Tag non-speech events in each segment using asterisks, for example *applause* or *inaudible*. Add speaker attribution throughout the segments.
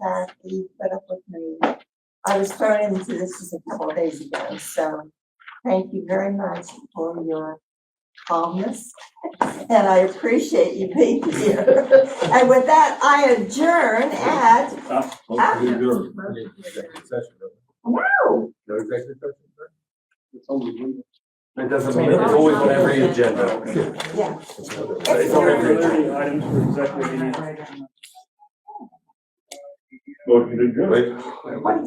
Speaker 1: that he put up with me. I was thrown into this just a couple of days ago, so thank you very much for your calmness. And I appreciate you being here. And with that, I adjourn at,
Speaker 2: Hopefully, you're.
Speaker 1: wow,
Speaker 2: No executive session, right?
Speaker 3: It doesn't mean it's always on every agenda.
Speaker 1: yeah.
Speaker 3: It's on every agenda.
Speaker 4: Thirty items for executive meeting.
Speaker 2: Motion to adjourn.
Speaker 3: Wait,
Speaker 1: What do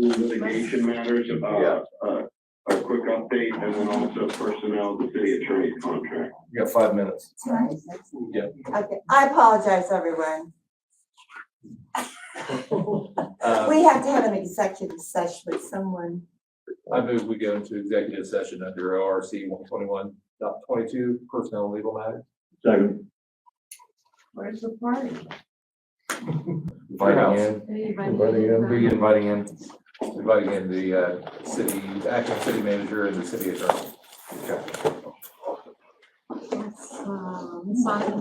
Speaker 1: you say?
Speaker 5: litigation matters about, uh, a quick update and then also personnel, the city attorney's contract.
Speaker 3: you got five minutes.
Speaker 1: Sorry.
Speaker 3: Yeah.
Speaker 1: Okay, I apologize, everyone.
Speaker 3: Uh,
Speaker 1: We have to have an executive session with someone.
Speaker 3: I move we go into executive session under ORC one twenty-one dot twenty-two, personnel and legal matters.
Speaker 2: Second.
Speaker 6: Where's the party?
Speaker 3: Inviting in,
Speaker 6: Anybody?
Speaker 3: who are you inviting in? Inviting in the, uh, city, acting city manager and the city attorney.
Speaker 6: Yes, um, Ms. Sonic,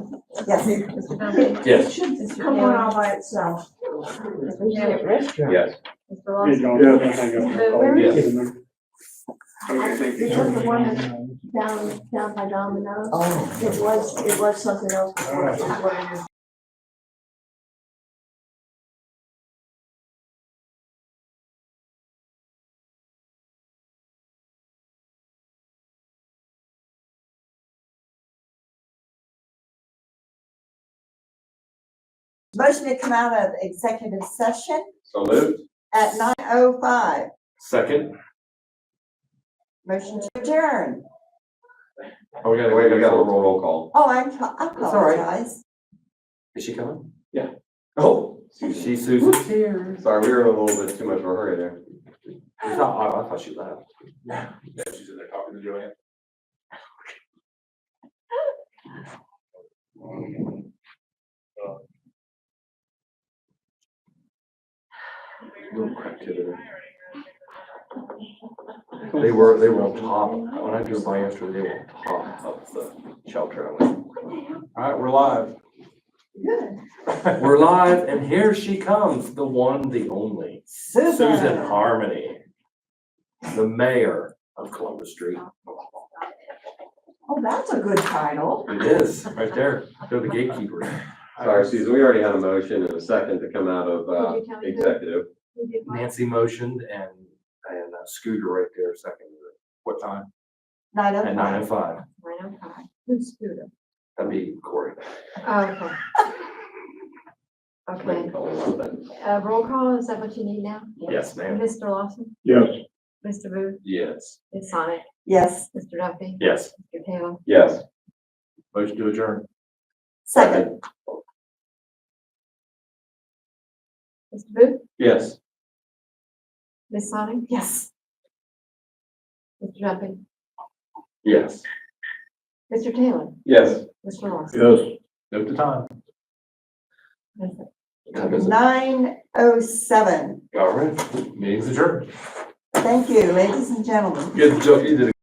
Speaker 1: Yes.
Speaker 6: Mr. Dumpy.
Speaker 3: Yes.
Speaker 6: Mr.
Speaker 1: Come on all by itself.
Speaker 6: Mr.
Speaker 3: Yes.
Speaker 6: Lawson.
Speaker 7: It was the one that's down, down by Domino's. It was, it was something else. before. It was one of the-
Speaker 1: Motion to come out of executive session
Speaker 3: So moved.
Speaker 1: at nine oh five.
Speaker 3: Second.
Speaker 1: Motion to adjourn.
Speaker 3: Oh, we gotta, we gotta roll call.
Speaker 1: Oh, I'm, I
Speaker 3: all right.
Speaker 1: apologize.
Speaker 3: Is she coming? Yeah. Oh, she, Susan. Sorry, we were in a little bit too much of a hurry there. It's not, I, I thought she left. Yeah, she's in there talking to Joanne. Little crack to it. They were, they were on top, when I drove by yesterday, they were on top of the shelter. Alright, we're live. *laughs* Good. We're live, and here she comes, the one, the only. Susan
Speaker 1: Susan.
Speaker 3: Harmony, the mayor of Columbus Street.
Speaker 1: Oh, that's a good title.
Speaker 3: It is, right there. They're the gatekeepers.
Speaker 8: Sorry, Susan, we already had a motion and a second to come out of uh,
Speaker 7: Would you tell me who-
Speaker 8: executive.
Speaker 7: who did what?
Speaker 3: Nancy motioned and, and uh, Scooter right there seconded it. What time?
Speaker 1: Nine oh
Speaker 3: At nine
Speaker 1: five.
Speaker 3: oh five.
Speaker 6: Who's Scooter?
Speaker 3: That'd be Corey.
Speaker 7: Oh, Okay. Okay. Uh, roll call, is that what you need now?
Speaker 3: Yes, ma'am.
Speaker 7: Mr. Lawson,
Speaker 2: Yes.
Speaker 7: Mr. Booth,
Speaker 3: Yes.
Speaker 7: Ms. Sonic,
Speaker 1: Yes,
Speaker 7: Mr. Duffy,
Speaker 3: Yes.
Speaker 7: Mr. Taylor.
Speaker 8: Yes.
Speaker 3: Motion to adjourn.
Speaker 1: second.
Speaker 7: Mr. Booth,
Speaker 3: Yes.
Speaker 7: Ms. Sonic,
Speaker 1: Yes.
Speaker 7: Mr. Duffy,
Speaker 3: Yes.
Speaker 7: Mr. Taylor,
Speaker 3: Yes.
Speaker 7: Mr. Lawson.
Speaker 2: Yes.
Speaker 3: Note the time. Time is-
Speaker 1: Nine oh seven.
Speaker 3: All right, meeting's adjourned.
Speaker 1: Thank you, ladies and gentlemen.
Speaker 3: Good joke, you did a